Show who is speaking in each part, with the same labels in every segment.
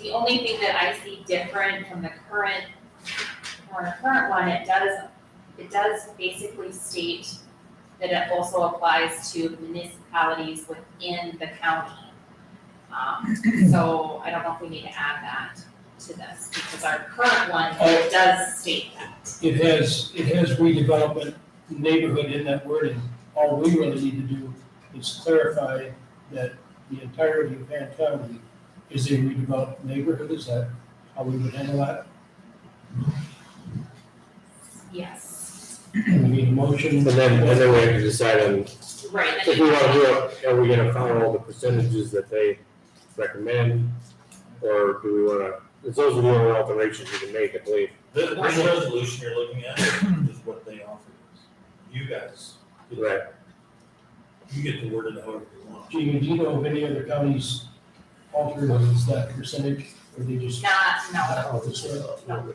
Speaker 1: The only thing that I see different from the current, from the current one, it does, it does basically state that it also applies to municipalities within the county. Um, so I don't know if we need to add that to this, because our current one
Speaker 2: Oh.
Speaker 1: does state that.
Speaker 2: It has, it has redevelopment neighborhood in that wording. All we really need to do is clarify that the entirety of Van County is a redeveloped neighborhood. Is that how we would handle that?
Speaker 1: Yes,
Speaker 2: We need a motion.
Speaker 3: And then, and then we have to decide on,
Speaker 1: right, and
Speaker 3: if we wanna do it, are we gonna follow the percentages that they recommend? Or do we wanna, it's those are the only alterations you can make, I believe.
Speaker 4: The, the resolution you're looking at is what they offered us. You guys,
Speaker 3: Right.
Speaker 4: you get the word in however you want.
Speaker 2: Jamie, do you know of any other counties alternatives that percentage, or they just?
Speaker 1: not, no,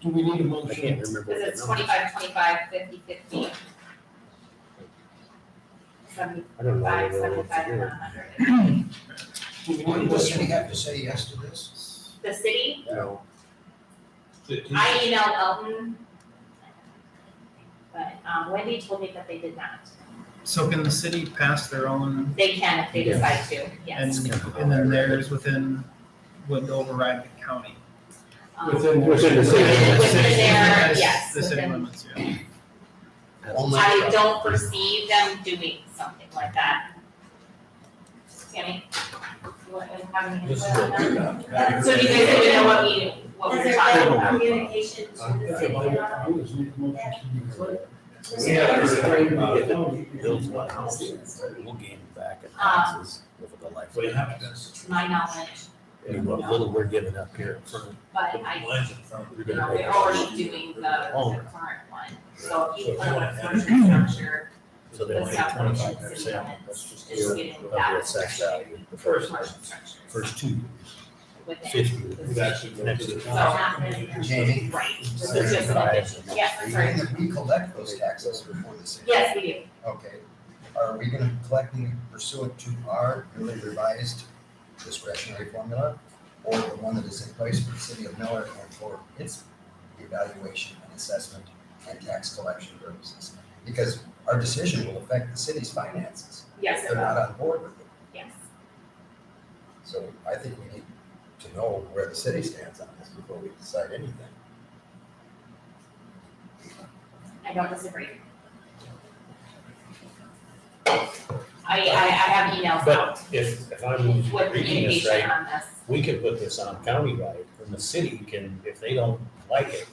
Speaker 2: Do we need a
Speaker 3: I can't
Speaker 2: motion?
Speaker 3: remember. what
Speaker 1: because it's
Speaker 3: the numbers-
Speaker 1: 25, 25, 50, 50, 75,
Speaker 3: I don't know. I don't know what to
Speaker 1: 75, and
Speaker 3: do.
Speaker 1: 100.
Speaker 2: Do we need a
Speaker 5: Wouldn't the city
Speaker 2: motion?
Speaker 5: have to say yes to this?
Speaker 1: The city,
Speaker 3: No.
Speaker 1: I emailed Elton. But um, Wendy told me that they did not.
Speaker 6: So can the city pass their own
Speaker 1: They can if they
Speaker 3: Yes.
Speaker 1: decide to,
Speaker 6: and,
Speaker 1: yes.
Speaker 6: and then theirs within, would override the county?
Speaker 1: Um,
Speaker 2: Within-
Speaker 3: Within the city limits.
Speaker 1: Within their,
Speaker 6: Yes,
Speaker 1: yes,
Speaker 6: The city
Speaker 1: within-
Speaker 6: limits, yeah.
Speaker 5: Only-
Speaker 1: I don't foresee them doing something like that. Tammy? you want to have any
Speaker 4: This is
Speaker 1: input on
Speaker 4: what we
Speaker 1: that?
Speaker 4: got.
Speaker 1: So do you guys even know what we, what we're
Speaker 7: Is there
Speaker 1: talking
Speaker 7: any
Speaker 1: about?
Speaker 7: communication to the city about?
Speaker 2: Do is need a motion to declare.
Speaker 7: this?
Speaker 4: We have heard about it.
Speaker 8: We'll gain back in
Speaker 1: Um,
Speaker 8: taxes over the life.
Speaker 4: What happens,
Speaker 1: To my knowledge,
Speaker 8: And what little we're giving up here in front of
Speaker 1: but
Speaker 4: the
Speaker 1: I,
Speaker 4: lines in front of
Speaker 1: you know, we're already doing the, the
Speaker 8: Oh,
Speaker 1: current one. So if you put a subscription structure,
Speaker 8: So they
Speaker 1: The
Speaker 8: only
Speaker 1: salary
Speaker 8: twenty-five
Speaker 1: should sit
Speaker 8: percent,
Speaker 1: on it.
Speaker 8: that's just
Speaker 1: it's
Speaker 8: the,
Speaker 1: getting
Speaker 8: of the
Speaker 1: that
Speaker 8: assessed
Speaker 1: structure,
Speaker 8: value, the
Speaker 1: commercial
Speaker 8: first,
Speaker 1: structure
Speaker 8: first two years,
Speaker 1: within.
Speaker 8: fifty.
Speaker 4: We've actually gone to the
Speaker 1: So not really,
Speaker 5: Jamie?
Speaker 1: right, this is just an addition.
Speaker 8: 75.
Speaker 1: Yes, I'm sorry.
Speaker 5: Even if we collect those taxes before the city.
Speaker 1: Yes, we do.
Speaker 5: Okay, are we gonna be collecting pursuant to our newly revised discretionary formula? Or the one that is in place for the city of Miller and for its evaluation and assessment and tax collection purposes? Because our decision will affect the city's finances, if
Speaker 1: Yes, it
Speaker 5: they're
Speaker 1: will.
Speaker 5: not on board with it.
Speaker 1: yes.
Speaker 5: So I think we need to know where the city stands on this before we decide anything.
Speaker 1: I don't disagree. I, I, I have emails out
Speaker 8: But if, if I'm
Speaker 1: with
Speaker 8: reading this right,
Speaker 1: communication on this.
Speaker 8: we could put this on countywide, and the city can, if they don't like it,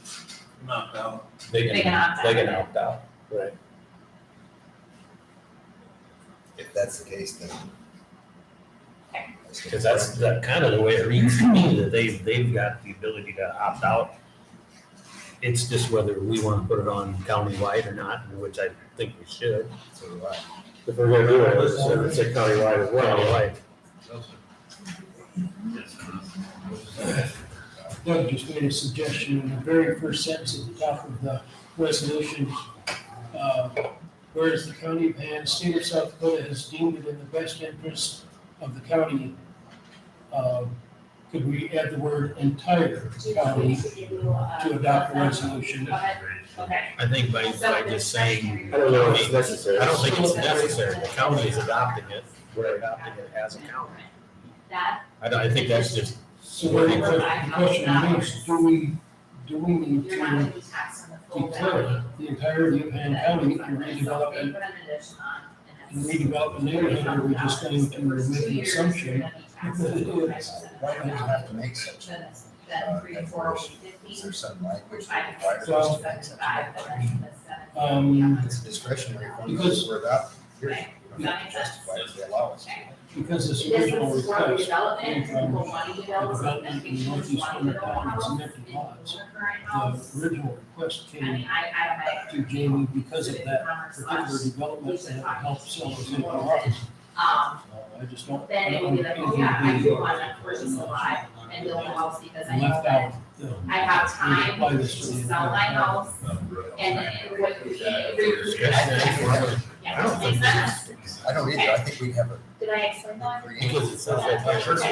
Speaker 4: knocked out.
Speaker 8: they
Speaker 1: They can opt
Speaker 8: can, they
Speaker 1: out.
Speaker 8: can opt out.
Speaker 3: Right.
Speaker 5: If that's the case, then.
Speaker 1: Okay.
Speaker 8: Cause that's, that kind of the way it reads to me, that they've, they've got the ability to opt out. It's just whether we wanna put it on countywide or not, which I think we should.
Speaker 5: So do I.
Speaker 3: If we're gonna do it, it's, it's a countywide as well.
Speaker 8: Countywide.
Speaker 2: Doug just made a suggestion in the very first sentence at the top of the resolution. uh, Whereas the county of Van, state of South Dakota has deemed it in the best interest of the county. um, Could we add the word entire county
Speaker 3: uh,
Speaker 2: to adopt the resolution?
Speaker 1: Go ahead. Okay,
Speaker 8: I think by, by just saying,
Speaker 3: I don't know if it's
Speaker 8: I
Speaker 3: necessary.
Speaker 8: don't think it's necessary, the county is adopting it, we're adopting it as a county.
Speaker 1: that,
Speaker 8: I don't, I think that's just,
Speaker 2: So what the the question is, do we, do we need
Speaker 1: you're not gonna
Speaker 2: to
Speaker 1: be taxed on the full value.
Speaker 2: declare the entirety of Van County to
Speaker 1: So if
Speaker 2: redevelop
Speaker 1: they put an addition on,
Speaker 2: and
Speaker 1: and it's-
Speaker 2: redevelop a neighborhood? Are we just going to make
Speaker 1: Two
Speaker 2: an
Speaker 1: years,
Speaker 2: assumption
Speaker 1: you're gonna be taxed on the full value.
Speaker 5: Why do we have to make such, a-
Speaker 1: Then- Then three, four,
Speaker 5: is
Speaker 1: fifteen,
Speaker 5: there some language that requires us to make such
Speaker 1: Five,
Speaker 5: a
Speaker 1: seven,
Speaker 5: declaration?
Speaker 2: Um,
Speaker 5: It's a discretionary formula
Speaker 2: Because-
Speaker 5: that we're adopting. You're,
Speaker 1: Okay.
Speaker 5: you don't have to justify it, they allow us to.
Speaker 2: Because this
Speaker 1: This is
Speaker 2: original
Speaker 1: for
Speaker 2: request
Speaker 1: development, people want to develop something,
Speaker 2: Development in
Speaker 1: people
Speaker 2: Northeast
Speaker 1: want to
Speaker 2: Corner
Speaker 1: build a
Speaker 2: County
Speaker 1: house,
Speaker 2: is
Speaker 1: and
Speaker 2: empty
Speaker 1: the
Speaker 2: lots.
Speaker 1: current house.
Speaker 2: The original request
Speaker 1: I mean,
Speaker 2: came
Speaker 1: I, I have
Speaker 2: to Jamie because of that
Speaker 1: a
Speaker 2: particular
Speaker 1: slash,
Speaker 2: development and it helped sell those empty lots.
Speaker 1: um,
Speaker 2: Uh, I just don't.
Speaker 1: then it would be like, oh yeah, I do want to purchase a lot and build a house because I know
Speaker 2: Left
Speaker 1: that
Speaker 2: out. the-
Speaker 1: I have time
Speaker 2: Apply
Speaker 1: to
Speaker 2: this to the
Speaker 1: sell my
Speaker 2: entire-
Speaker 1: house and it would be, yeah, makes sense.
Speaker 5: I don't either, I think we have a
Speaker 1: Did I explain that?
Speaker 5: creative.
Speaker 8: because it sounds like.